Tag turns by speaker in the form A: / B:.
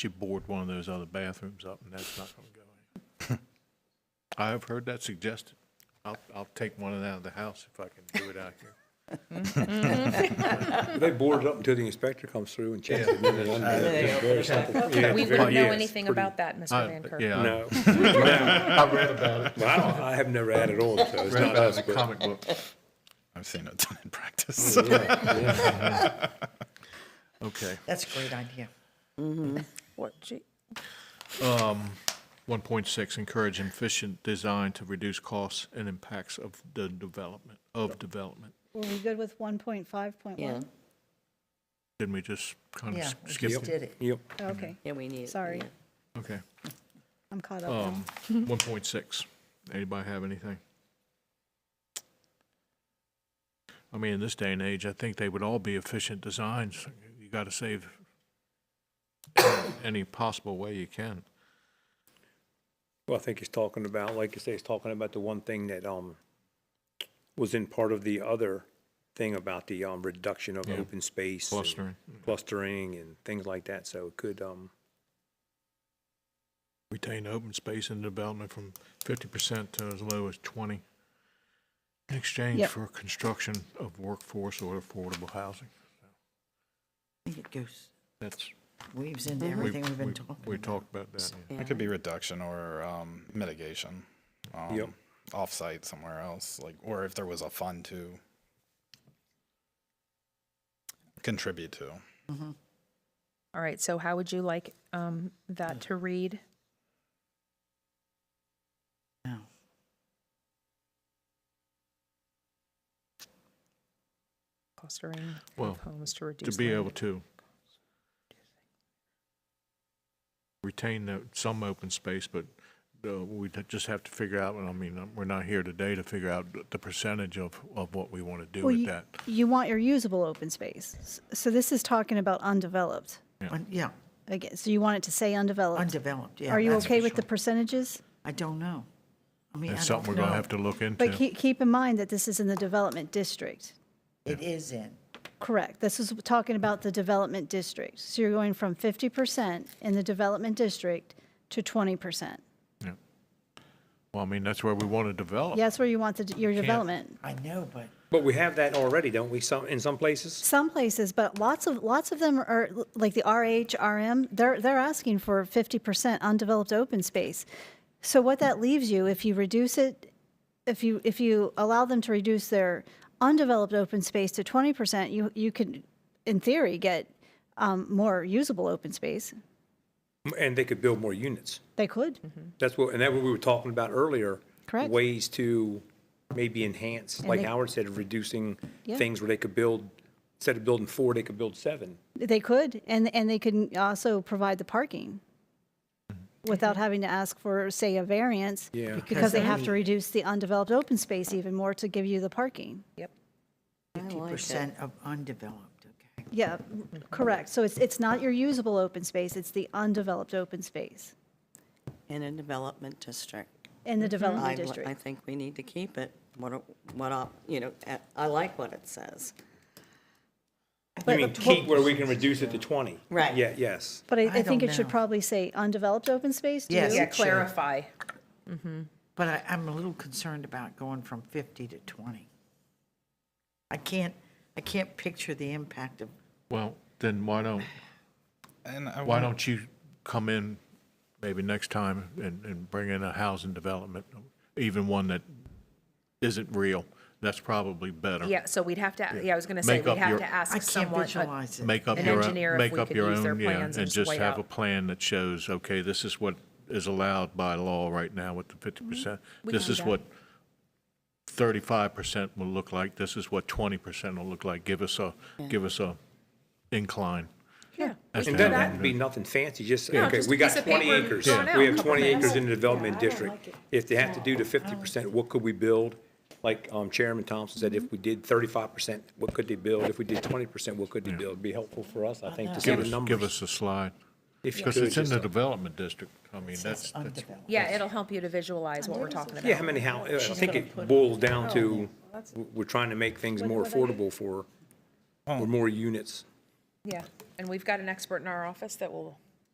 A: she bored one of those other bathrooms up, and that's not going to go in. I have heard that suggested. I'll, I'll take one of them out of the house if I can do it out here.
B: They board it up until the inspector comes through and checks it. There's something- yeah,
C: We
B: it's very-
C: don't know
A: yeah, it's
C: anything about that, Mr. Van
A: I-
C: Kirk.
A: Uh, Yeah. I-
B: No,
D: I read about it.
B: Well, I don't- I have never added on, so it's
D: Read
B: not
D: about it
B: us,
D: in a
B: but-
D: comic book. I've seen it done in practice.
B: Yeah, yeah.
A: Okay.
E: That's a great idea.
F: What, gee?
A: um, 1.6, encourage efficient design to reduce costs and impacts of the development, of development.
F: Were we good with one point five point
G: Yeah,
F: one?
A: Didn't we just kind
E: Yeah,
A: of
E: we
A: skip?
E: just
A: it?
E: did it.
B: Yep.
F: Oh, Okay,
G: yeah, we need. it,
F: Sorry.
G: yeah.
A: Okay.
F: I'm caught up now.
A: Um, 1.6, anybody have anything? I mean, in this day and age, I think they would all be efficient designs. You got to save any possible way you can.
B: Well, I think he's talking about, like you say, he's talking about the one thing that, um, was in part of the other thing about the, um, reduction of
A: Yeah.
B: open space. and
A: Clustering.
B: Clustering and things like that, so it could, um,
A: retain open space in development from fifty percent to as low as twenty in exchange
F: Yep.
A: for construction of workforce or affordable housing.
E: I think it goes,
A: That's,
E: weaves into
A: we,
E: everything we've
A: Mm-hmm. we,
E: been talking about.
A: we talked about that. yeah.
G: Yeah.
D: It could be reduction or um, mitigation. Um,
B: Yep.
D: Offsite somewhere else, like, or if there was a fund to contribute to.
C: All right, so how would you like um, that to read?
E: No.
C: Clustering
A: Well,
C: of homes to reduce.
A: To be
C: land
A: able to retain the, some open space, but uh, we just have to figure out, and I mean, uh, we're not here today to figure out the- the percentage of, of what we want to do
F: Well,
A: with
F: you-
A: that.
F: You want your usable open space. S- So this is talking about undeveloped.
E: Un- Yeah,
F: Again, so you want it to say undeveloped.
E: undeveloped, yeah.
F: Are you
E: that's for
F: okay with the
E: sure.
F: percentages?
E: I don't know. I mean, I
A: That's
E: don't
A: something we're going to
E: know.
A: have to look into.
F: But keep, keep in mind that this is in the development district.
E: It is in,
F: Correct. This is talking about the development district. So you're going from fifty percent in the development district to twenty percent.
A: Yeah. Well, I mean, that's where we want to develop.
F: Yeah, that's where you want the, your development.
E: I know, but
B: but we have that already, don't we, some, in some places?
F: Some places, but lots of, lots of them are, like the RH, RM, they're, they're asking for 50% undeveloped open space. So what that leaves you, if you reduce it, if you, if you allow them to reduce their undeveloped open space to 20%, you, you can, in theory, get um, more usable open space.
B: And they could build more units.
F: They could.
B: That's what, and that what we were talking about earlier.
F: Correct.
B: Ways to maybe enhance, like
F: they-
B: Howard said, reducing
F: Yeah.
B: things where they could build, instead of building four, they could build seven.
F: They could, and, and they can also provide the parking without having to ask for, say, a variance.
B: Yeah.
F: Because they have to
E: Because-
F: reduce the undeveloped open space even more to give you the parking.
C: Yep.
G: I like that.
E: 50% of undeveloped, okay.
F: Yeah, correct. So it's, it's not your usable open space, it's the undeveloped open space
G: In a development district.
F: in the
G: I,
F: development
G: li- I
F: district.
G: think we need to keep it, what, it- what, op- you know, at- I like what it says.
B: You mean keep where we can reduce it to 20?
G: Right.
B: Yeah, yes.
F: But I,
E: I
F: I think
E: don't
F: it should
E: know.
F: probably say undeveloped open space, do
E: Yes.
F: you?
C: Yeah,
E: Section.
C: clarify.
F: Mm-hmm.
E: But I, I'm a little concerned about going from 50 to 20. I can't, I can't picture the impact of,
A: Well, then why don't,
D: And I
A: why
D: wonder-
A: don't you come in maybe next time and, and bring in a housing development, even one that isn't real? That's probably better.
C: Yeah, so we'd have to, yeah, I was going to say,
A: Make
C: we'd
A: up
C: have
A: your-
C: to
E: I
C: ask
E: can't
C: someone. uh,
E: visualize it.
A: Make up
C: An
A: your,
C: engineer
A: own-
C: if
A: make
C: we
A: up
C: could
A: your
C: use their
A: own, yeah,
C: plans and
A: and
C: just
A: just
C: lay
A: have
C: out.
A: a plan that shows, okay, this is what is allowed by law right now with the fifty percent.
C: Mm-hmm. We
A: This
C: can do
A: is
C: that.
A: what thirty-five percent will look like, this is what twenty percent will look like. Give us a, give us a incline.
C: Yeah.
A: That's
B: And
A: what
B: then
A: I'm
B: that'd
A: doing.
B: be nothing fancy, just,
C: Yeah,
B: okay,
C: just
B: we
C: a
B: got
C: piece of
B: 20
C: paper
B: acres.
C: drawn out.
B: We have
C: Couple
B: 20 acres
C: minutes.
B: in the development district. If they have to do the 50%, what could we build? Like um, Chairman Thompson said,
C: Mm-hmm.
B: if we did 35%, what could they build? If we did 20%, what could they build? It'd Be helpful for us, I think, to see
A: Give
B: the
A: us, give
B: numbers.
A: us a slide,
B: If you
A: because
B: could,
A: it's in
B: just
A: the
B: a-
A: development district. I mean, that's,
E: it's
A: that's,
E: undeveloped.
C: Yeah, it'll help you to visualize
E: Oh,
C: what we're talking about.
B: Yeah, how many, how, I think it boils down to, w- we're trying to make things more affordable for, for more units.
C: Yeah, and we've got an expert in our office that will